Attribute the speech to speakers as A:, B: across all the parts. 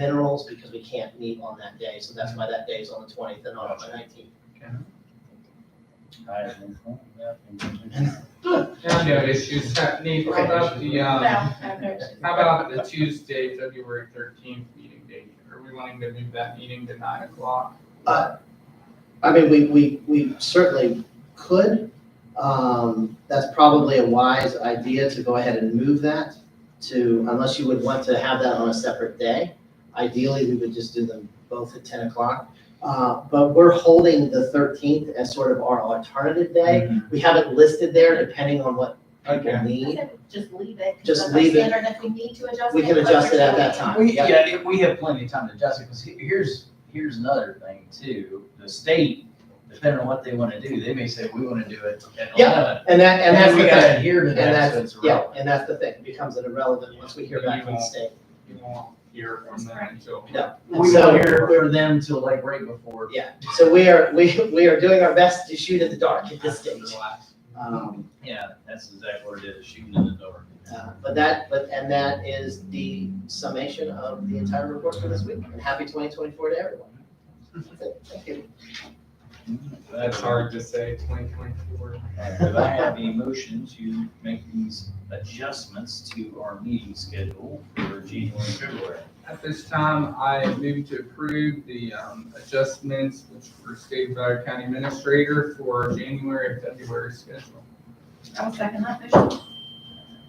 A: minerals because we can't meet on that day, so that's why that day is on the twentieth and not on the nineteenth.
B: I know issues happening, how about the, um, how about the Tuesday, February thirteenth meeting date? Are we wanting to move that meeting to nine o'clock?
A: I mean, we, we, we certainly could, um, that's probably a wise idea to go ahead and move that to, unless you would want to have that on a separate day. Ideally, we would just do them both at ten o'clock. Uh, but we're holding the thirteenth as sort of our alternative day.
C: Mm.
A: We have it listed there depending on what people
B: Okay.
A: need.
D: Just leave it.
A: Just leave it.
D: And if we need to adjust it.
A: We can
D: but
A: adjust it at
D: we're
A: that
D: doing
A: time.
C: We, yeah, it- we have plenty of time to adjust it, because here's, here's another thing too, the state, depending on what they wanna do, they may say, we wanna do it at
A: Yeah,
C: eleven.
A: And that, and that's the
C: We
A: thing,
C: gotta adhere to
A: and
C: that, so
A: that's,
C: it's
A: yeah,
C: relevant.
A: and that's the thing, it becomes an irrelevant once we hear back from the state.
B: You won't hear from them until.
A: No.
C: We
A: So-
C: won't hear from them till like right before.
A: Yeah, so we are, we, we are doing our best to shoot in the dark at this
B: after
A: stage.
B: the last.
A: Um,
C: Yeah, that's exactly what it is, shooting in the dark.
A: uh, But that, but, and that is the summation of the entire report for this week, and happy twenty twenty-four to everyone. That's it. Thank you.
B: That's hard to say, twenty twenty-four.
C: And if I have a motion to make these adjustments to our meeting schedule for January and February.
B: At this time, I move to approve the um, adjustments which were stated by our county administrator for January and February schedule.
D: it. I'll second that motion.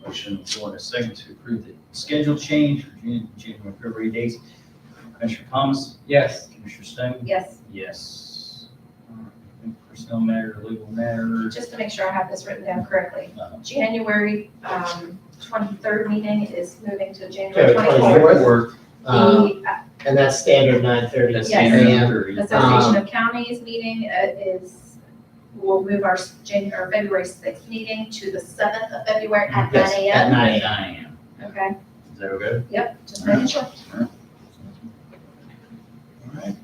C: Motion on the floor in a second to approve the schedule change for Jan- January and February dates. Commissioner Thomas,
B: Yes,
C: Commissioner Stone?
D: Yes,
C: Yes. Personnel matter, legal matter.
D: just to make sure I have this written down correctly.
C: uh,
D: January, um, twenty-third meeting is moving to
A: Yeah,
D: January twenty-fourth.
A: 24th.
C: Work.
A: Uh,
D: The uh,
A: And that's standard nine thirty.
C: that's
D: Yes.
C: standard
A: AM.
C: three.
D: Association
A: um,
D: of Counties meeting uh, is, we'll move our January, February sixth meeting to the seventh of February at nine
A: Yes,
D: AM.
A: At nine AM.
C: Nine AM.
D: Okay,
C: Is that okay?
D: yep, just making sure.
C: All right.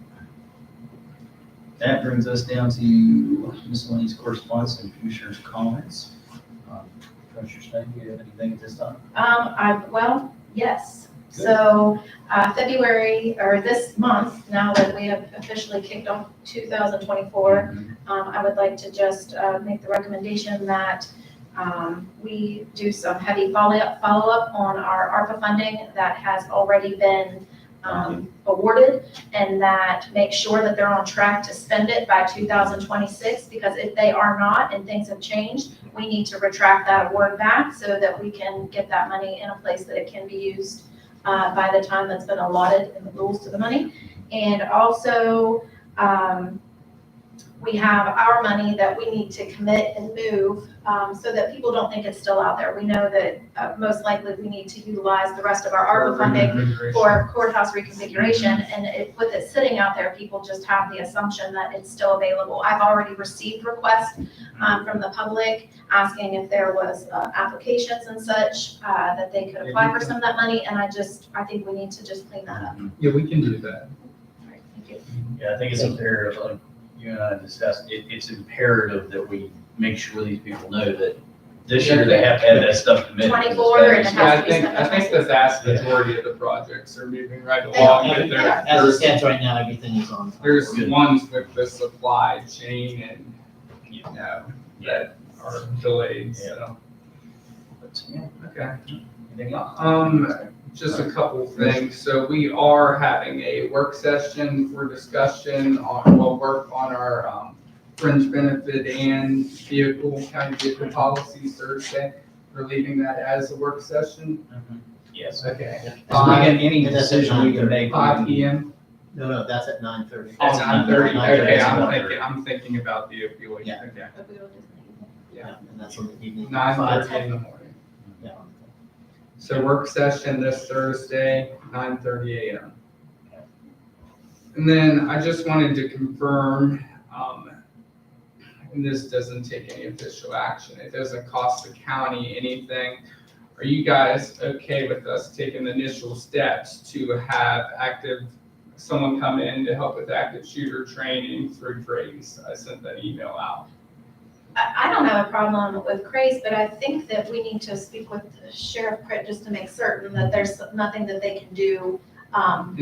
C: That brings us down to miscellaneous correspondence and commissioners' comments. Um, Commissioner Stone, do you have anything at this time?
D: Um, I, well, yes. So, uh, February, or this month, now that we have officially kicked off two thousand twenty-four, um, I would like to just, uh, make the recommendation that, um, we do some heavy follow-up, follow-up on our ARPA funding that has already been, um, awarded, and that make sure that they're on track to spend it by two thousand twenty-six, because if they are not and things have changed, we need to retract that award back so that we can get that money in a place that it can be used, uh, by the time that's been allotted in the rules to the money. And also, um, we have our money that we need to commit and move um, so that people don't think it's still out there. We know that uh, most likely we need to utilize the rest of our ARPA funding for courthouse reconfiguration. And it, with it sitting out there, people just have the assumption that it's still available. I've already received requests
C: Mm-hmm.
D: um, from the public asking if there was uh, applications and such, uh, that they could apply for some of that money. And I just, I think we need to just clean that up.
B: Yeah, we can do that.
D: All right, Thank you.
C: Yeah, I think it's imperative, like you and I discussed, it, it's imperative that we make sure these people know that this year they have to have that stuff committed.
D: 24 and a half.
B: Yeah, I think, I think the vast majority of the projects are moving right
D: They
B: along, but
D: every-
B: there,
A: As it
B: there's,
A: stands right now, everything is on. time.
B: there's
C: Good.
B: ones with the supply chain and, you know,
C: Yeah.
B: that are delayed, so.
C: But, yeah,
B: Okay.
C: anything else?
B: Um, just a couple things. So we are having a work session for discussion on, we'll work on our, um, fringe benefit and vehicle, county vehicle policies Thursday. We're leaving that as a work session.
A: Mm-hmm.
C: Yes.
B: Okay.
A: Yeah.
B: Five-
C: Again, any
A: And that's at
C: decision we can
A: 9:30.
C: make.
B: Five P M.
A: No, no, that's at nine thirty.
B: Oh,
C: That's
B: nine thirty.
C: 9:30.
B: Okay, I'm
C: That's
B: thinking, I'm thinking about the opioid.
A: Yeah.
B: Okay.
D: But we will just-
A: Yeah, and that's on the evening.
B: Nine
A: Five.
B: thirty in the morning.
A: Yeah.
B: So work session this Thursday, nine thirty AM. And then I just wanted to confirm, um, and this doesn't take any official action, it doesn't cost the county anything. Are you guys okay with us taking the initial steps to have active, someone come in to help with active shooter training through Grace? I sent that email out.
D: I, I don't have a problem with craze, but I think that we need to speak with Sheriff Pritt just to make certain that there's nothing that they can do, um,